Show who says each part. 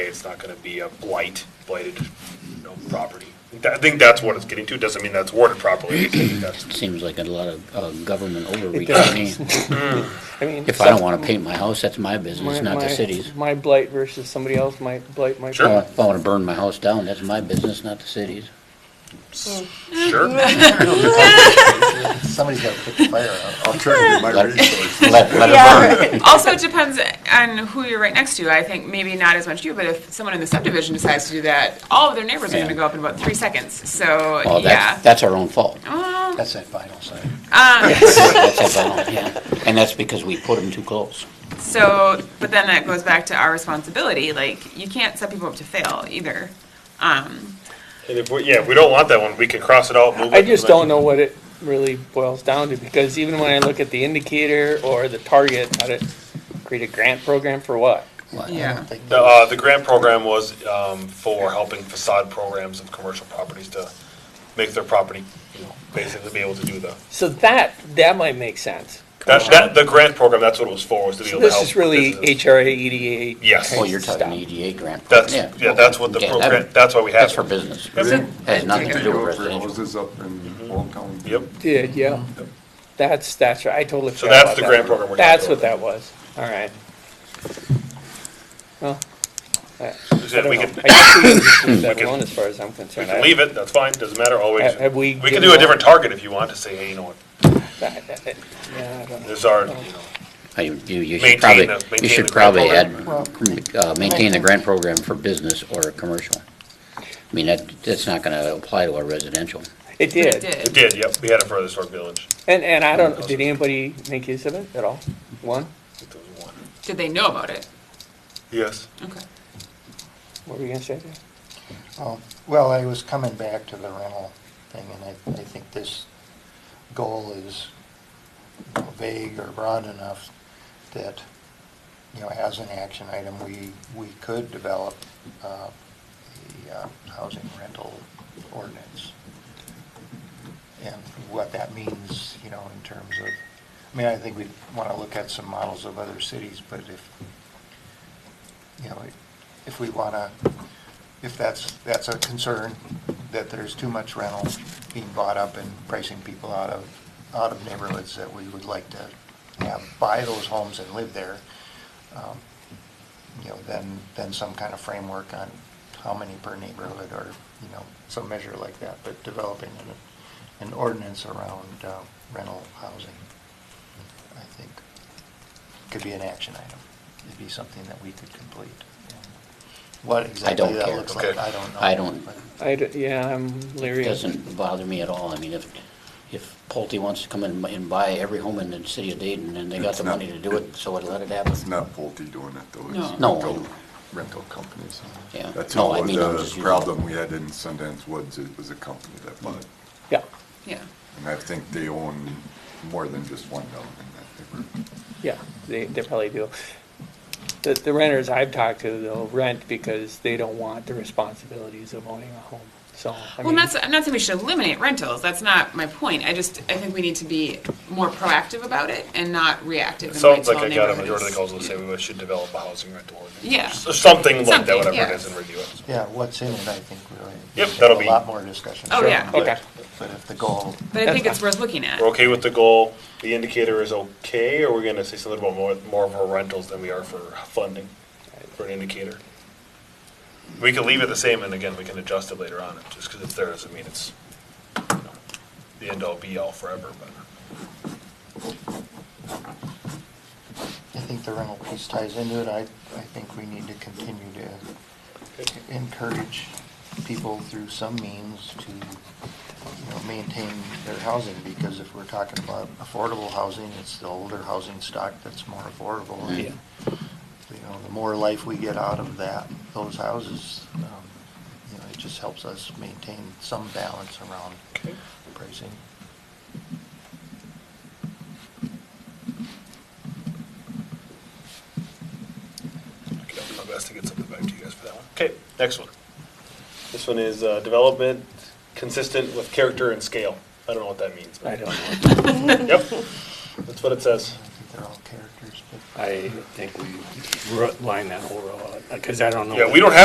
Speaker 1: it's not gonna be a blight, blighted, you know, property. I think that's what it's getting to, doesn't mean that's worded properly. I think that's-
Speaker 2: Seems like a lot of uh, government overreach to me.
Speaker 3: does. I mean,
Speaker 2: If I don't want to paint my house, that's my business,
Speaker 3: my-
Speaker 2: not the
Speaker 3: my-
Speaker 2: city's.
Speaker 3: My blight versus somebody else, my blight, my.
Speaker 1: Sure.
Speaker 2: Uh, If I want to burn my house down, that's my business, not the city's.
Speaker 1: Sure,
Speaker 4: Somebody's got to put the fire out.
Speaker 2: Let-
Speaker 4: Alternative might resource.
Speaker 2: Let, let it burn.
Speaker 5: Yeah. Also, it depends on who you're right next to. I think maybe not as much you, but if someone in the subdivision decides to do that, all of their neighbors are
Speaker 2: Yeah.
Speaker 5: gonna go up in about three seconds, so,
Speaker 2: Well,
Speaker 5: yeah.
Speaker 2: that's, that's our own fault. Oh.
Speaker 5: Well,
Speaker 4: That's that vinyl side.
Speaker 2: Ah. That's our own, yeah. And that's because we put them too close.
Speaker 5: So, but then that goes back to our responsibility, like, you can't set people up to fail either. Um,
Speaker 1: and if, we- yeah, if we don't want that one, we can cross it out, move it.
Speaker 3: I just don't know what it really boils down to, because even when I look at the indicator or the target, how to create a grant program for what?
Speaker 5: yeah,
Speaker 1: The, uh, the grant program was, um, for helping facade programs of commercial properties to make their property, you know, basically be able to do the,
Speaker 3: So that, that might make sense.
Speaker 1: that, that, the grant program, that's what it was for, was to be
Speaker 3: So
Speaker 1: able to
Speaker 3: this
Speaker 1: help.
Speaker 3: is really
Speaker 1: businesses.
Speaker 3: HRA, EDA.
Speaker 1: Yes.
Speaker 2: Oh, you're talking
Speaker 3: Stop.
Speaker 2: EDA grant.
Speaker 1: That's,
Speaker 2: program.
Speaker 1: yeah, that's what the
Speaker 2: Yeah,
Speaker 1: program,
Speaker 2: that-
Speaker 1: that's why we have.
Speaker 2: That's for
Speaker 1: it.
Speaker 2: business.
Speaker 1: That's it.
Speaker 2: Has nothing to do with
Speaker 4: For
Speaker 2: residential.
Speaker 4: Houses up in Old Town.
Speaker 1: Yep.
Speaker 3: Did, yeah. That's, that's right, I totally
Speaker 1: So
Speaker 3: forgot
Speaker 1: that's
Speaker 3: about
Speaker 1: the
Speaker 3: that.
Speaker 1: grant program we're. gonna
Speaker 3: That's
Speaker 1: do.
Speaker 3: what that was, all right. Well, I I
Speaker 1: Yeah,
Speaker 3: don't
Speaker 1: We
Speaker 3: know. I
Speaker 1: can,
Speaker 3: guess we can just leave that
Speaker 1: can-
Speaker 3: alone as far as I'm
Speaker 1: we
Speaker 3: concerned.
Speaker 1: can
Speaker 3: I-
Speaker 1: leave it, that's fine, doesn't matter, always.
Speaker 3: Have- have we
Speaker 1: We can
Speaker 3: given
Speaker 1: do a
Speaker 3: all-
Speaker 1: different target if you want to say, hey, you know what,
Speaker 3: I- I- yeah, I don't know.
Speaker 1: there's our, you know,
Speaker 2: I- You you
Speaker 1: Maintain
Speaker 2: should probably,
Speaker 1: the- maintain
Speaker 2: you should
Speaker 1: the grant
Speaker 2: probably add,
Speaker 4: program.
Speaker 2: uh, maintain the grant program for business or commercial. I mean, that, that's not going to apply to our residential.
Speaker 3: It
Speaker 5: it
Speaker 3: did,
Speaker 1: we
Speaker 5: did.
Speaker 1: did, yep, we had it for the Sword Village.
Speaker 3: and, and I don't, did anybody make use of it at all? One?
Speaker 1: I think there was one.
Speaker 5: Did they know about it?
Speaker 1: Yes.
Speaker 5: Okay.
Speaker 3: What were you gonna say there?
Speaker 6: Oh, Well, I was coming back to the rental thing, and I, I think this goal is vague or broad enough that, you know, as an action item, we, we could develop uh, the uh, housing rental ordinance. And what that means, you know, in terms of, I mean, I think we want to look at some models of other cities, but if, you know, if we want to if that's, that's a concern, that there's too much rental being bought up and pricing people out of, out of neighborhoods that we would like to have, buy those homes and live there, um, you know, then, then some kind of framework on how many per neighborhood or, you know, some measure like that, but developing an, an ordinance around uh, rental housing, I think, could be an action item. It'd be something that we could complete. What
Speaker 2: don't
Speaker 6: exactly that
Speaker 2: care.
Speaker 6: looks like,
Speaker 1: Okay.
Speaker 6: I don't know.
Speaker 2: I don't-
Speaker 6: but-
Speaker 3: I, d- yeah, I'm
Speaker 2: It
Speaker 3: leery. of-
Speaker 2: doesn't bother me at all. I mean, if, if Pulte wants to come in and buy every home in the city of Dayton and they got the money to do it, so I'd let it happen.
Speaker 4: It's not Pulte doing it though.
Speaker 5: No.
Speaker 4: it's
Speaker 2: No.
Speaker 4: rental- Rental companies.
Speaker 2: Yeah.
Speaker 4: That's
Speaker 2: No, I
Speaker 4: what
Speaker 2: mean, I'm just
Speaker 4: the
Speaker 2: using-
Speaker 4: problem we had in Sundance Woods, it was a company that bought it.
Speaker 3: Yeah,
Speaker 5: Yeah.
Speaker 4: And I think they own more than just one building. I think we're-
Speaker 3: yeah, they, they probably do. The, the renters I've talked to, they'll rent because they don't want the responsibilities of owning a home, so. I mean-
Speaker 5: Well, I'm not, s- I'm not saying we should eliminate rentals, that's not my point, I just, I think we need to be more proactive about it and not
Speaker 1: It
Speaker 5: reactive and wait
Speaker 1: sounds
Speaker 5: till
Speaker 1: like
Speaker 5: neighborhoods.
Speaker 1: I got a majority of the calls that say we should develop a housing rental ordinance.
Speaker 5: Yeah.
Speaker 1: So Something like that,
Speaker 5: Something,
Speaker 1: whatever it
Speaker 5: yeah.
Speaker 1: is, and review it.
Speaker 6: Yeah, what's in it, I think, really.
Speaker 1: Yep,
Speaker 6: There's
Speaker 1: that'll be-
Speaker 6: A lot more discussion.
Speaker 5: Oh,
Speaker 6: Sure.
Speaker 5: yeah.
Speaker 6: But-
Speaker 3: Okay.
Speaker 6: But if the goal,
Speaker 5: But I think it's worth looking at.
Speaker 1: We're okay with the goal, the indicator is okay, or we're gonna say something about more, more of our rentals than we are for funding, for an indicator? We can leave it the same, and again, we can adjust it later on, just because it's there doesn't mean it's, you know, the end all be all forever, but,
Speaker 6: I think the rental piece ties into it, I, I think we need to continue to encourage people through some means to, you know, maintain their housing, because if we're talking about affordable housing, it's the older housing stock that's more affordable. and,
Speaker 3: Yeah.
Speaker 6: You know, the more life we get out of that, those houses, um, you know, it just helps us maintain some balance around pricing.
Speaker 1: okay, I'll do my best to get something back to you guys for that one. Okay, next one. This one is, uh, development consistent with character and scale. I don't know what that means,
Speaker 3: I
Speaker 1: but,
Speaker 3: don't know.
Speaker 1: yep, that's what it says.
Speaker 6: I think they're all characters, but.
Speaker 7: I think we ru- line that whole row out, because I don't know.
Speaker 1: Yeah,
Speaker 7: what-
Speaker 1: we don't have